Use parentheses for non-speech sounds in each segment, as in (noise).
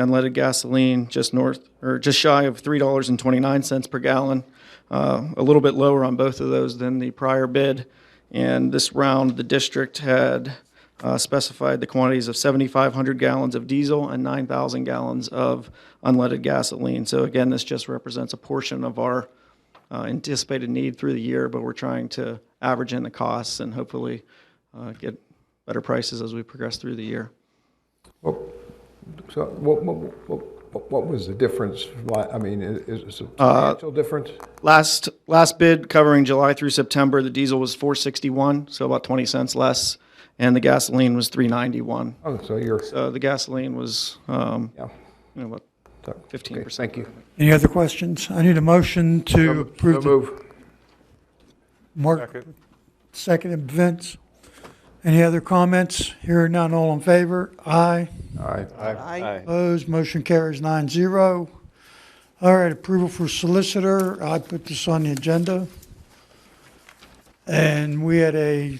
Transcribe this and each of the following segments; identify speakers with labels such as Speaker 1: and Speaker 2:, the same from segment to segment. Speaker 1: unleaded gasoline just north or just shy of three dollars and twenty nine cents per gallon, uh, a little bit lower on both of those than the prior bid. And this round, the district had uh, specified the quantities of seventy five hundred gallons of diesel and nine thousand gallons of unleaded gasoline. So again, this just represents a portion of our uh, anticipated need through the year, but we're trying to average in the costs and hopefully uh, get better prices as we progress through the year.
Speaker 2: So what, what, what, what was the difference? Why, I mean, i- is it substantial difference?
Speaker 1: Last, last bid covering July through September, the diesel was 461, so about 20 cents less, and the gasoline was 391.
Speaker 2: Oh, so you're,
Speaker 1: So the gasoline was, um,
Speaker 2: yeah.
Speaker 1: you know, about
Speaker 2: So-
Speaker 1: 15%.
Speaker 2: okay, Thank you.
Speaker 3: Any other questions? I need a motion to
Speaker 2: So
Speaker 3: approve the
Speaker 2: move.
Speaker 3: Mark. Second, Vince. Any other comments? Here are none, all in favor? Aye.
Speaker 2: Aye.
Speaker 4: Aye.
Speaker 3: Opposed, motion carries nine zero. All right, approval for solicitor, I put this on the agenda. And we had a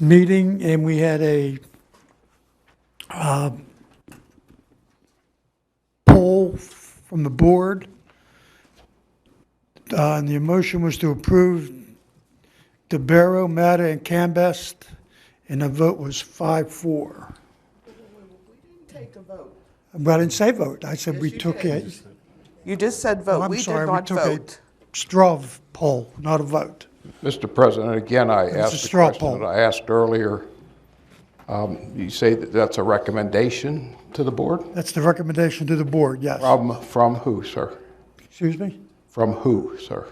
Speaker 3: meeting and we had a uh, poll from the board. Uh, And the motion was to approve DeBarrow, Matta, and Cambest, and the vote was five, four.
Speaker 4: Take a vote.
Speaker 3: But I didn't say vote. I said we
Speaker 4: you
Speaker 3: took
Speaker 4: did.
Speaker 3: a
Speaker 4: You just said
Speaker 3: Oh,
Speaker 4: vote.
Speaker 3: I'm
Speaker 4: We did
Speaker 3: sorry, we
Speaker 4: not
Speaker 3: took a
Speaker 4: vote.
Speaker 3: straw poll, not a vote.
Speaker 5: Mr. President, again, I
Speaker 3: was
Speaker 5: asked
Speaker 3: a
Speaker 5: the
Speaker 3: straw
Speaker 5: question
Speaker 3: poll.
Speaker 5: that I asked earlier. Um, You say that that's a recommendation to the board?
Speaker 3: That's the recommendation to the board, yes.
Speaker 5: From, from who, sir?
Speaker 3: Excuse me?
Speaker 5: From who, sir?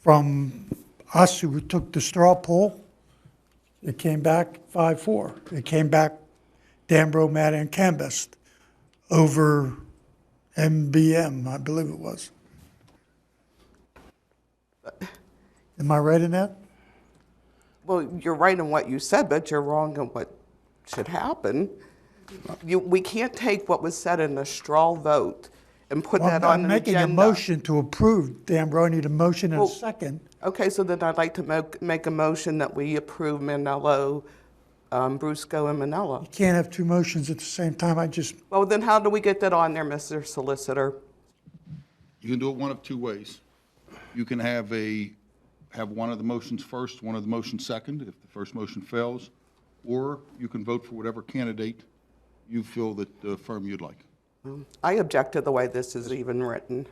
Speaker 3: From us who took the straw poll, it came back five, four. It came back Danbro, Matt, and Cambest over MBM, I believe it was. Am I right in that?
Speaker 4: Well, you're right in what you said, but you're wrong in what should happen. You, we can't take what was said in a straw vote and put
Speaker 3: Well,
Speaker 4: that
Speaker 3: I'm
Speaker 4: on an
Speaker 3: making a
Speaker 4: agenda.
Speaker 3: motion to approve Danbro. I need a motion and a
Speaker 4: Well-
Speaker 3: second.
Speaker 4: Okay, so then I'd like to mo- make a motion that we approve Manello, um, Brusco, and Manella.
Speaker 3: Can't have two motions at the same time. I just
Speaker 4: Well, then how do we get that on there, Mr. Solicitor?
Speaker 6: You can do it one of two ways. You can have a, have one of the motions first, one of the motions second, if the first motion fails, or you can vote for whatever candidate you feel that the firm you'd like.
Speaker 4: I object to the way this is even written.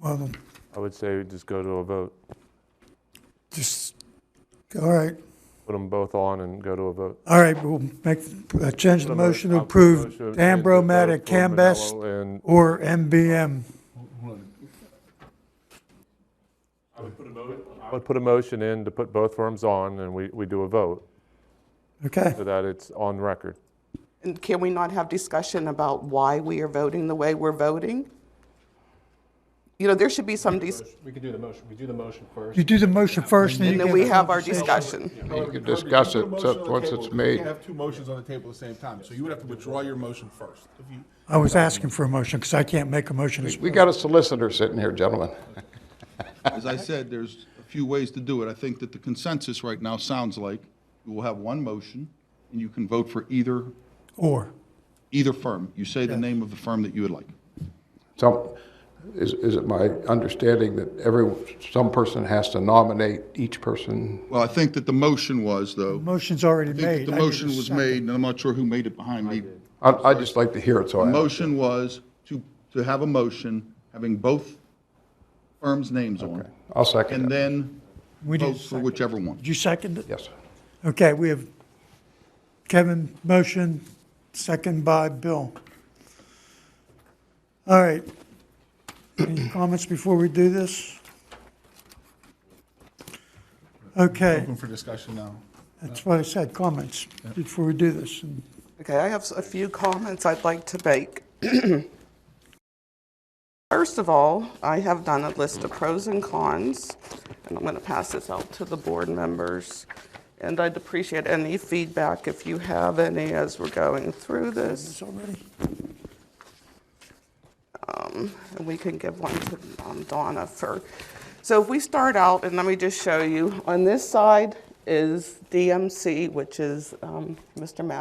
Speaker 3: Well,
Speaker 7: I would say just go to a vote.
Speaker 3: just, all right,
Speaker 7: Put them both on and go to a vote.
Speaker 3: all right, we'll make, uh, change the motion to
Speaker 7: I'll put a
Speaker 3: approve
Speaker 7: motion to
Speaker 3: Ambro,
Speaker 7: vote
Speaker 3: Matta,
Speaker 7: for
Speaker 3: Cambest,
Speaker 7: Manello and-
Speaker 3: or MBM.
Speaker 7: I would put a motion in to put both firms on and we, we do a vote
Speaker 3: Okay,
Speaker 7: so that it's on record.
Speaker 4: And can we not have discussion about why we are voting the way we're voting? You know, there should be some, dis-
Speaker 8: We could do the motion, we do the motion first.
Speaker 3: you do the motion first, and you
Speaker 4: and
Speaker 3: get.
Speaker 4: then we have our discussion.
Speaker 5: You can discuss it so- once it's
Speaker 9: You
Speaker 5: made.
Speaker 9: can't have two motions on the table at the same time, so you would have to withdraw your motion first. If you-
Speaker 3: I was asking for a motion, because I can't make a motion.
Speaker 5: We got a solicitor sitting here, gentlemen.
Speaker 6: As I said, there's a few ways to do it. I think that the consensus right now sounds like you will have one motion, and you can vote for either,
Speaker 3: Or,
Speaker 6: either firm. You say the name of the firm that you would like.
Speaker 5: Some, is, is it my understanding that every, some person has to nominate each person?
Speaker 6: Well, I think that the motion was, though,
Speaker 3: motion's already
Speaker 6: I think
Speaker 3: made.
Speaker 6: that the
Speaker 3: I need a
Speaker 6: motion was
Speaker 3: second.
Speaker 6: made, and I'm not sure who made it behind me.
Speaker 5: I- I'd just like to hear it, so I.
Speaker 6: The motion was to, to have a motion having both firms' names on. it,
Speaker 5: I'll second
Speaker 6: And
Speaker 5: it.
Speaker 6: then
Speaker 3: We
Speaker 6: vote
Speaker 3: did,
Speaker 6: for whichever one.
Speaker 3: did you second it?
Speaker 5: Yes.
Speaker 3: Okay, we have Kevin motion, second by Bill. All right. Any comments before we do this? Okay,
Speaker 9: Open for discussion now.
Speaker 3: that's what I said, comments before we do this. And
Speaker 4: Okay, I have s- a few comments I'd like to make. (clears throat) First of all, I have done a list of pros and cons, and I'm going to pass this out to the board members. And I'd appreciate any feedback if you have any as we're going through this.
Speaker 3: It's already,
Speaker 4: and we can give one to um, Donna for. So if we start out, and let me just show you, on this side is DMC, which is um, Mr. Madden.